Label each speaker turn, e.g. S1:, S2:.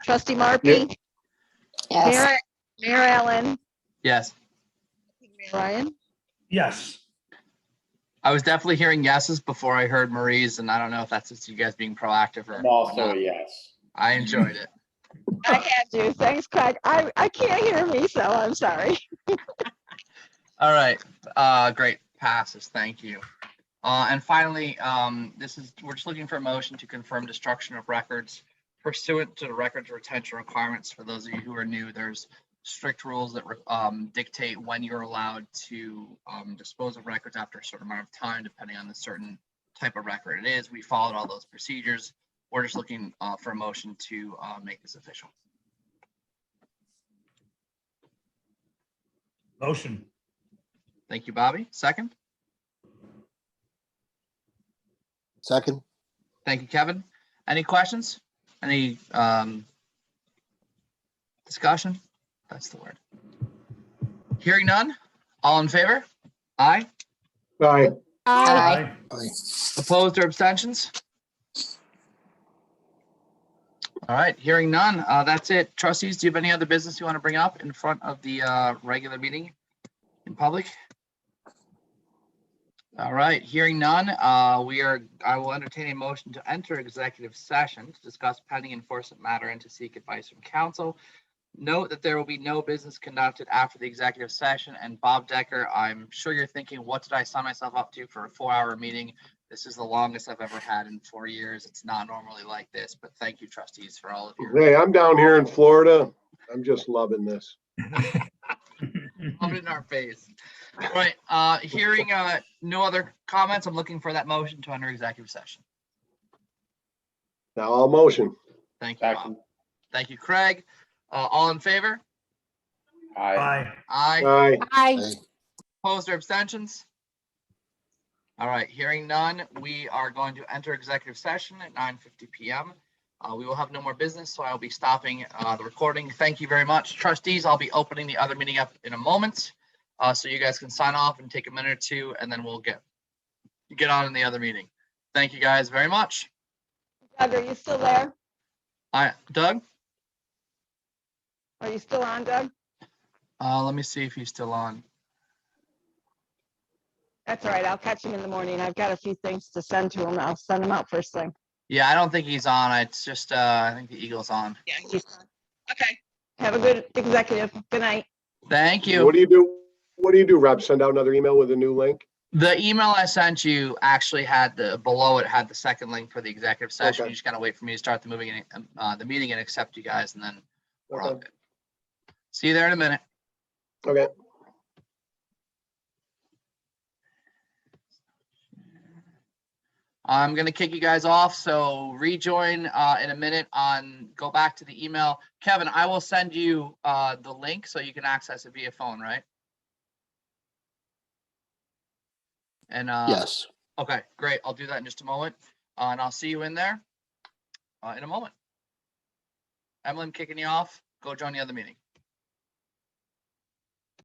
S1: Trustee Marpy?
S2: Yes.
S1: Mayor Mayor Allen?
S3: Yes,
S1: Mayor Ryan?
S4: Yes.
S3: I was definitely hearing yeses before I heard Marie's, and I don't know if that's just you guys being proactive or.
S5: I'm also a
S3: whatnot.
S5: yes.
S3: I enjoyed it.
S1: I had you. Thanks, Craig. I, I can't hear me, so I'm sorry.
S3: All right, uh, great passes, thank you. Uh, and finally, um, this is, we're just looking for a motion to confirm destruction of records pursuant to the records retention requirements. For those of you who are new, there's strict rules that, re- um, dictate when you're allowed to, um, dispose of records after a certain amount of time, depending on the certain type of record it is. We followed all those procedures. We're just looking, uh, for a motion to, uh, make this official.
S4: Motion.
S3: Thank you, Bobby. Second?
S6: Second,
S3: Thank you, Kevin. Any questions? Any um discussion? That's the word. Hearing none, all in favor? Aye.
S7: Aye.
S2: Aye.
S6: aye.
S3: Opposed or abstentions? All right, hearing none, uh, that's it. Trustees, do you have any other business you want to bring up in front of the uh, regular meeting in public? All right, hearing none, uh, we are, I will entertain a motion to enter executive session to discuss pending enforcement matter and to seek advice from counsel. Note that there will be no business conducted after the executive session. And Bob Decker, I'm sure you're thinking, what did I sign myself up to for a four-hour meeting? This is the longest I've ever had in four years. It's not normally like this, but thank you trustees for all of your.
S7: Hey, I'm down here in Florida. I'm just loving this.
S3: Love it in our face. All Right, uh, hearing, uh, no other comments, I'm looking for that motion to enter executive session.
S7: Now I'll motion.
S3: Thank you, Bob.
S5: Second.
S3: Thank you, Craig. Uh, all in favor?
S5: Aye.
S4: Aye.
S3: Aye.
S7: Aye.
S2: Aye.
S6: Aye.
S3: Opposed or abstentions? All right, hearing none, we are going to enter executive session at nine fifty PM. Uh, we will have no more business, so I'll be stopping, uh, the recording. Thank you very much. Trustees, I'll be opening the other meeting up in a moment. Uh, so you guys can sign off and take a minute or two, and then we'll get, get on in the other meeting. Thank you guys very much.
S1: Doug, are you still there?
S3: All right, Doug,
S1: Are you still on, Doug?
S3: uh, let me see if he's still on.
S1: That's all right. I'll catch him in the morning. I've got a few things to send to him. I'll send them out first thing.
S3: Yeah, I don't think he's on. It's just, uh, I think the Eagle's on.
S1: Yeah. Okay. Have a good executive. Good night.
S3: Thank you.
S7: What do you do? What do you do, Rob? Send out another email with a new link?
S3: The email I sent you actually had the, below it had the second link for the executive session.
S7: Okay.
S3: You just gotta wait for me to start the moving, and, uh, the meeting and accept you guys and then we're all
S7: Okay.
S3: good. See you there in a minute.
S7: Okay.
S3: I'm gonna kick you guys off, so rejoin, uh, in a minute on, go back to the email. Kevin, I will send you, uh, the link so you can access it via phone, right? And, uh.
S6: Yes.
S3: Okay, great. I'll do that in just a moment. Uh, and I'll see you in there uh, in a moment. Emily, I'm kicking you off. Go join the other meeting.